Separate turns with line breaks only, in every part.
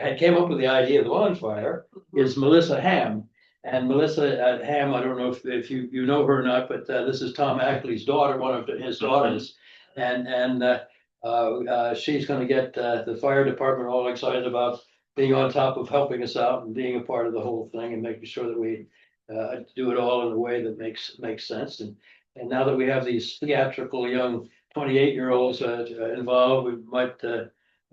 had came up with the idea of the bonfire is Melissa Ham. And Melissa uh, Ham, I don't know if, if you, you know her or not, but uh, this is Tom Ackley's daughter, one of his daughters. And, and uh, uh, uh, she's gonna get uh, the fire department all excited about being on top of helping us out and being a part of the whole thing and making sure that we uh, do it all in a way that makes, makes sense. And, and now that we have these theatrical young twenty-eight-year-olds uh, involved, we might uh,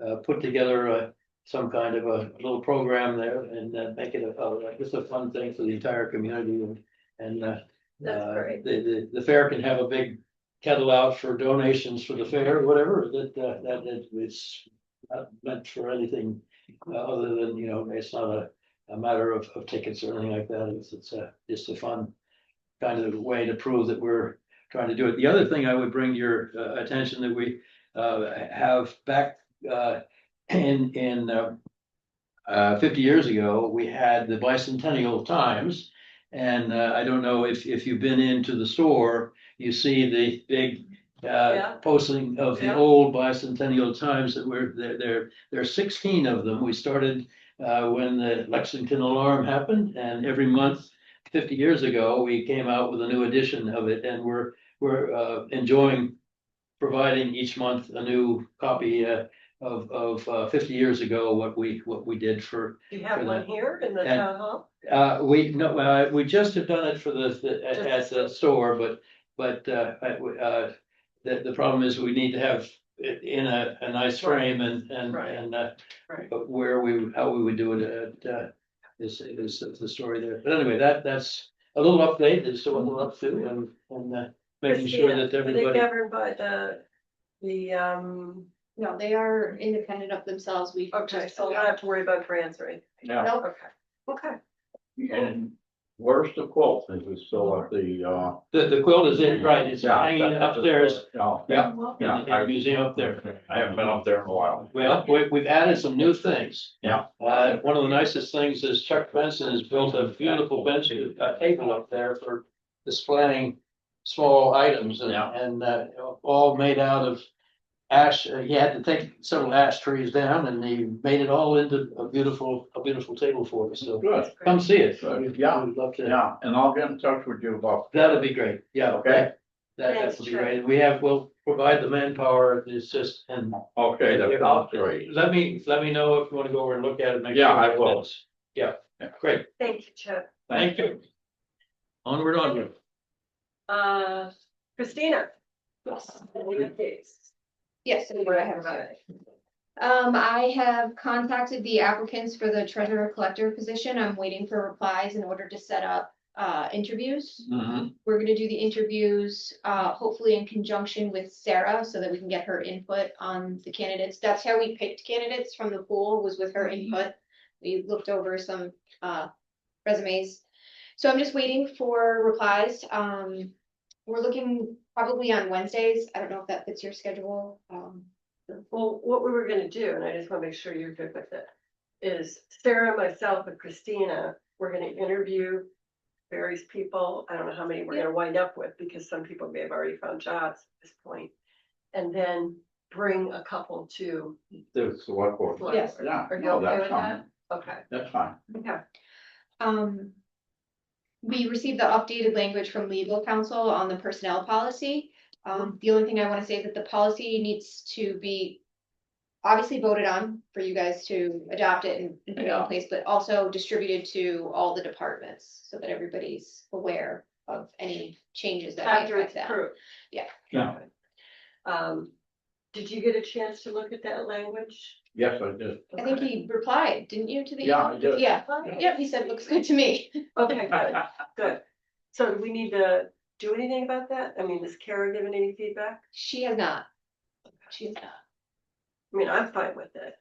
uh, put together a some kind of a little program there and uh, make it a, a- just a fun thing for the entire community and, and, uh.
That's
uh,
great.
The, the, the fair can have a big kettle out for donations for the fair, whatever, that, uh, that, that is not meant for anything uh, other than, you know, it's not a, a matter of, of tickets or anything like that. It's, it's a, just a fun kind of way to prove that we're trying to do it. The other thing I would bring to your uh, attention that we uh, have back uh, in, in uh, uh, fifty years ago, we had the bicentennial times. And uh, I don't know if, if you've been into the store, you see the big
Yeah.
uh, posting of the
Yeah.
old bicentennial times that were, there, there, there are sixteen of them. We started uh, when the Lexington alarm happened and every month fifty years ago, we came out with a new edition of it and we're, we're uh, enjoying providing each month a new copy uh, of, of uh, fifty years ago, what we, what we did for
You
for
have one
that.
here in the
And-
town hall?
uh, we, no, uh, we just have done it for the- the, at, at the store, but, but, uh, I- we- uh. The, the problem is we need to have it in a, a nice frame and, and,
Right.
and, uh.
Right.
But where we, how we would do it, at, uh, is, is the story there, but anyway, that, that's a little update, is what we're up
Mm-hmm.
to, and, and, uh. Making sure
Christina,
that
Are they
everybody,
governed by the, the, um,
No, they are independent of themselves. We
okay,
just
so I
sold
don't have to worry about grants or anything.
Now,
Nope.
Okay, okay.
and where's the quilt? Is it still at the, uh?
the, the quilt is in, right, it's
yeah,
hanging
that- that's-
upstairs
Oh, yeah,
in
yeah.
the- in the museum up there.
I haven't been up there in a while.
Well, we, we've added some new things.
Yeah.
Uh, one of the nicest things is Chuck Benson has built a beautiful bench, a table up there for displaying small items and,
Yeah.
and, uh, all made out of ash. Uh, He had to take several ash trees down and he made it all into a beautiful, a beautiful table for us. So
Good,
come see it.
Good.
We'd-
Yeah.
We'd love to.
yeah, and I'll get in touch with you about.
That'd be great. Yeah.
Okay.
that- That, that
Thanks,
would be
Chuck.
great. We have, we'll provide the manpower. It's just, and
Okay, that sounds great.
let me, let me know if you wanna go over and look at it. make
Yeah,
sure
I
it
will.
fits. Yeah,
Yeah.
great,
Thank you, Chip.
thank you. Onward, onward.
Uh, Christina?
Yes.
Any updates?
Yes, and what I have
Uh,
about it. Um, I have contacted the applicants for the treasurer collector position. I'm waiting for replies in order to set up uh interviews.
Mhm.
We're gonna do the interviews uh hopefully in conjunction with Sarah so that we can get her input on the candidates. That's how we picked candidates from the pool was with her input. We looked over some uh resumes. So I'm just waiting for replies. Um, we're looking probably on Wednesdays. I don't know if that fits your schedule. Um,
Well, what we were gonna do, and I just wanna make sure you're good with it, is Sarah, myself, and Christina, we're gonna interview various people. I don't know how many we're gonna wind up with, because some people may have already found jobs at this point. And then bring a couple to.
The select board.
select
Yes.
board.
Yeah.
Are you
no,
okay
that's
with that?
fine.
Okay,
That's fine.
yeah,
Um. We received the updated language from legal counsel on the personnel policy. Um, the only thing I want to say is that the policy needs to be. Obviously voted on for you guys to adopt it and and put it in
Yeah.
place, but also distributed to all the departments so that everybody's aware of any changes that might
after
affect
it's
that.
approved.
Yeah.
Yeah.
Um, did you get a chance to look at that language?
Yes, I did.
I think he replied, didn't you, to the?
Yeah,
email?
I did.
Yeah, yeah, he said, looks good to me.
Okay, good, good. So do we need to do anything about that? I mean, is Kara given any feedback?
She has not. She has not.
I mean, I'm fine with it.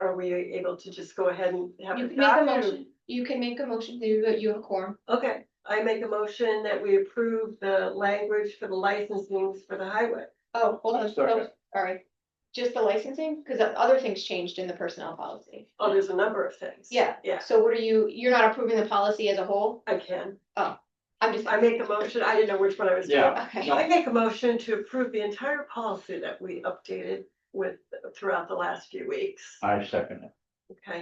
Are we able to just go ahead and have
You
a
can make a
document?
motion, you can make a motion, you you have a quorum.
Okay, I make a motion that we approve the language for the licensings for the highway.
Oh, hold on,
Sorry.
no, sorry. Just the licensing, because other things changed in the personnel policy.
Oh, there's a number of things.
Yeah.
Yes,
So what are you, you're not approving the policy as a whole?
I can.
I'm just.
I make a motion. I didn't know which one I was doing.
Yeah.
Okay,
No.
I make a motion to approve the
Uh,
entire policy that we updated with throughout the last few weeks.
I second it.
okay?